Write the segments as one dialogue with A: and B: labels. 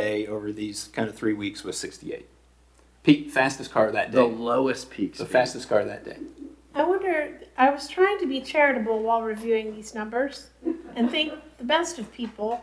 A: day over these kind of three weeks was 68. Peak fastest car that
B: The
A: day.
B: lowest peak
A: The
B: speed.
A: fastest car that day.
C: I wonder, I was trying to be charitable while reviewing these numbers and think the best of people.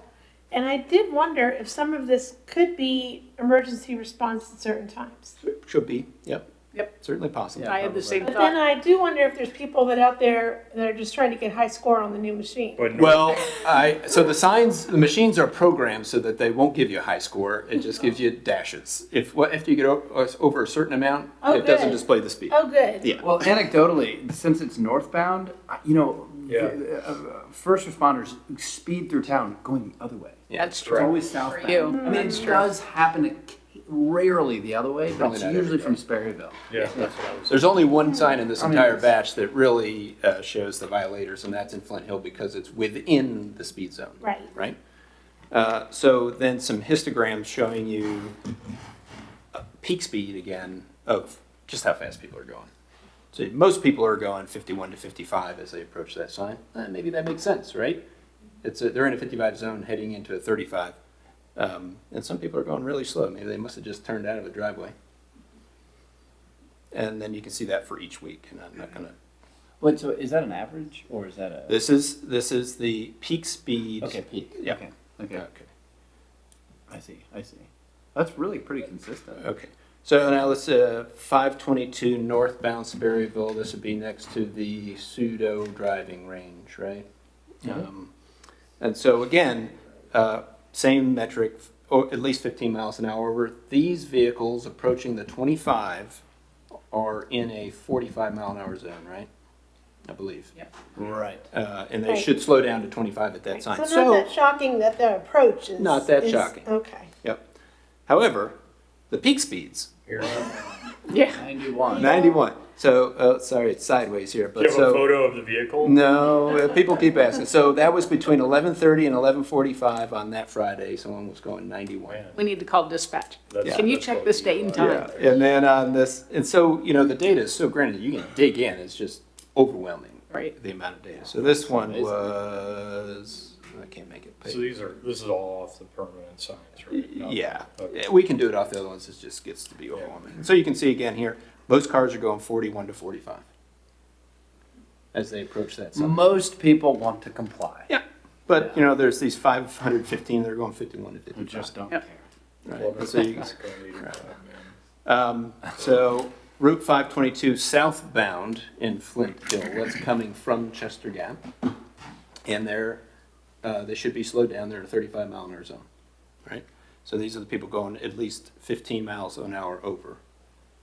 C: And I did wonder if some of this could be emergency response at certain times.
A: Should be. Yep.
D: Yep.
A: Certainly possible.
D: I had the same
C: But then
D: thought.
C: I do wonder if there's people that out there that are just trying to get high score on the new machine.
E: But no,
A: Well, I so the signs, the machines are programmed so that they won't give you a high score. It just gives you dashes. If what after you get o- over a certain amount,
C: Oh,
A: it doesn't
C: good.
A: display the speed.
C: Oh, good.
A: Yeah.
B: Well, anecdotally, since it's northbound, I- you know,
E: Yeah.
B: the- uh, uh, first responders speed through town going the other way.
D: That's
B: It's
D: true.
B: always southbound.
D: you.
B: I mean, it does happen occ- rarely the other way, but
A: Probably
B: it's
A: not
B: usually
A: every
B: from Sperryville.
E: yeah.
A: There's only one sign in this
B: I mean,
A: entire
B: it's-
A: batch that really uh, shows the violators, and that's in Flint Hill because it's within the speed zone.
C: Right.
A: Right? Uh, so then some histograms showing you uh, peak speed again of just how fast people are going. So most people are going 51 to 55 as they approach that sign. Uh, maybe that makes sense, right? It's a, they're in a 55 zone heading into a 35. Um, and some people are going really slow. Maybe they must have just turned out of a driveway. And then you can see that for each week. And I'm not gonna.
F: Wait, so is that an average or is that a
A: This is this is the peak speed.
F: okay peak?
A: Yeah.
F: Okay,
B: Okay,
A: Okay.
F: I see. I see.
B: that's really pretty consistent.
A: Okay. So now let's uh, 522 northbound Sperryville. This would be next to the pseudo driving range, right? Um, and so again, uh, same metric, or at least 15 miles an hour. Where these vehicles approaching the 25 are in a 45 mile an hour zone, right? I believe.
B: Right.
A: Uh, and they
C: Right.
A: should slow down to 25 at that
C: So
A: sign.
C: not that shocking that the approach is.
A: Not that
C: is-
A: shocking.
C: Okay.
A: Yep. However, the peak speeds
D: Yeah.
B: Ninety-one.
A: 91. So uh, sorry, it's sideways here,
E: Do you
A: but
E: have a
A: so
E: photo of the vehicle?
A: no, uh, people keep asking. So that was between 11:30 and 11:45 on that Friday. Someone was going 91.
E: Man,
D: We need to call dispatch.
E: that's-
D: Can you
E: that's
D: check
E: what
D: this
E: we
D: date and
E: got.
D: time?
A: Yeah, and then on this, and so you know the data is so granted you can dig in. It's just overwhelming
D: Right.
A: the amount of data. So this one
F: Amazing.
A: was I can't make it.
E: So these are, this is all off the permanent signs, right? No.
A: Yeah,
E: Okay.
A: we can do it off the other ones, it just gets to be overwhelming. So you can see again here, most cars are going forty-one to forty-five as they approach that
B: Mm-hmm.
A: summit.
B: Most people want to comply.
A: Yeah, but, you know, there's these five hundred fifteen, they're going fifty-one to
B: Who
A: fifty-five.
B: just don't
D: Yep.
B: care.
A: right?
E: Well,
A: And
E: that's
A: So,
E: not
A: you-
E: gonna leave your time, man.
A: um, so Route five twenty-two southbound in Flint Hill, that's coming from Chester Gap. And they're, uh, they should be slowed down, they're in a thirty-five mile an hour zone, right? So these are the people going at least fifteen miles an hour over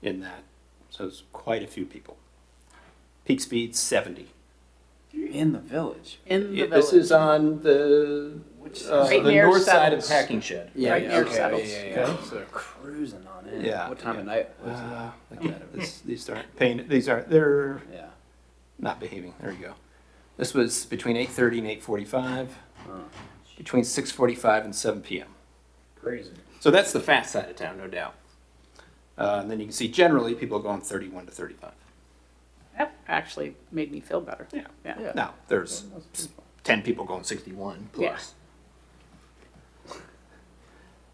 A: in that. So it's quite a few people. Peak speed seventy.
B: You're in the village.
D: In the
A: Yeah, This
D: village.
A: is on the, uh,
D: Right
A: the
D: near
A: north side of
D: Settles.
A: Packing Shed.
B: Yeah,
D: Right
B: yeah,
D: near
B: okay,
D: Settles.
B: Yeah, yeah, yeah. So cruising on in.
A: Yeah,
B: What time
A: yeah.
B: of night was it?
A: Uh, I can't- this- These aren't paying, these aren't, they're
B: Yeah.
A: not behaving, there you go. This was between eight thirty and eight forty-five,
B: Oh.
A: between six forty-five and seven PM.
E: Crazy.
A: So that's the fast side of town, no doubt. Uh, and then you can see generally people are going thirty-one to thirty-five.
D: That actually made me feel better.
A: Yeah.
D: Yeah.
A: Now, there's ten people going sixty-one plus.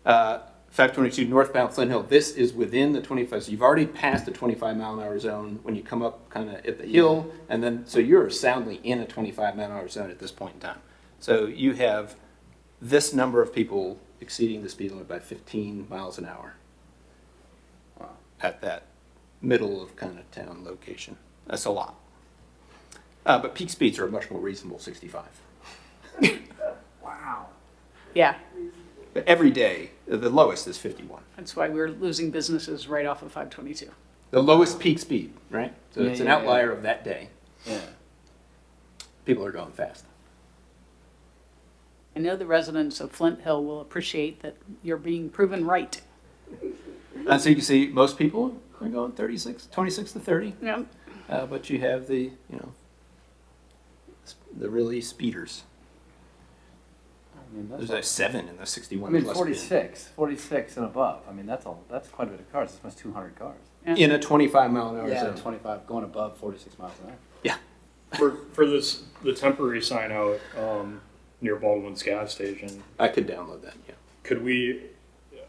A: Uh, five twenty-two northbound Flint Hill, this is within the twenty-five, so you've already passed the twenty-five mile an hour zone when you come up kind of at the hill, and then, so you're soundly in a twenty-five mile an hour zone at this point in time. So you have this number of people exceeding the speed limit by fifteen miles an hour. At that middle of kind of town location, that's a lot. Uh, but peak speeds are a much more reasonable 65.
B: Wow.
D: Yeah.
A: But every day, the lowest is 51.
D: That's why we're losing businesses right off of 522.
A: The lowest peak speed, right? So
B: Yeah,
A: it's an
B: yeah, yeah.
A: outlier of that day.
B: Yeah.
A: People are going fast.
D: I know the residents of Flint Hill will appreciate that you're being proven right.
A: And so you can see most people are going 36, 26 to 30.
D: Yeah.
A: Uh, but you have the, you know, sp- the really speeders.
B: I mean, that's
A: There's
B: a-
A: a seven in the 61
B: I mean,
A: plus
B: 46, 46 and above. I mean, that's a that's quite a bit of cars. That's almost 200 cars.
A: speed. in a 25 mile an hour zone.
B: 25 going above 46 miles an hour.
E: For, for this, the temporary sign out, um, near Baldwin's gas station,
A: I could download that, yeah.
E: could we